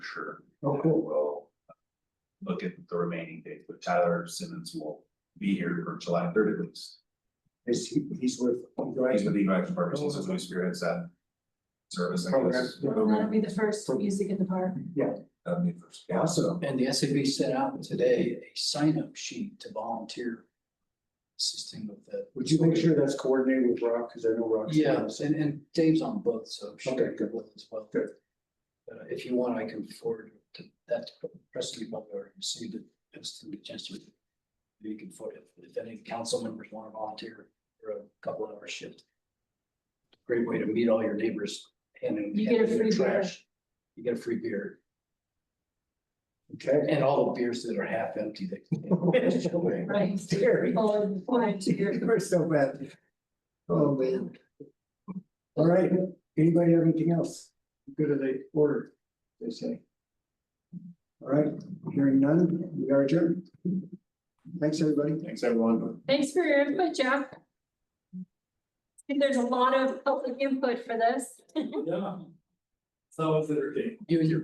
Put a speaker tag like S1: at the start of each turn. S1: sure.
S2: Oh, cool.
S1: We'll look at the remaining dates, but Tyler Simmons will be here for July thirty at least.
S2: Is he, he's with.
S1: He's with E the Drive Purposes of New Spirits that service, I guess.
S3: That'll be the first music in the park.
S1: That'd be first. Yeah,
S2: Awesome.
S4: And the SAB sent out today a sign-up sheet to volunteer assisting with that.
S2: Would you make sure that's coordinated with Rock, because I know Rock's.
S4: Yes, and, and Dave's on both, so. she
S2: Okay, good.
S4: will As well.
S2: Good.
S4: Uh, if you want, I can forward to that to Presley Butler and see that, that's the chance to. You can forward, it. if any council members want to volunteer for a couple hour shift. Great way to meet all your neighbors and.
S3: You get a free beer.
S4: You get a free beer
S2: Okay.
S4: and all the beers that are half empty that.
S3: Right. Oh,
S2: Scary.
S3: Or volunteer.
S2: We're so bad. Oh, man. All right, anybody have anything else? Good of the order, they say. All right, hearing none, we are adjourned. Thanks, everybody.
S1: Thanks, everyone.
S3: Thanks for your input, Jeff. And There's a lot of public input for this.
S5: Yeah. So it's entertaining.
S4: You and your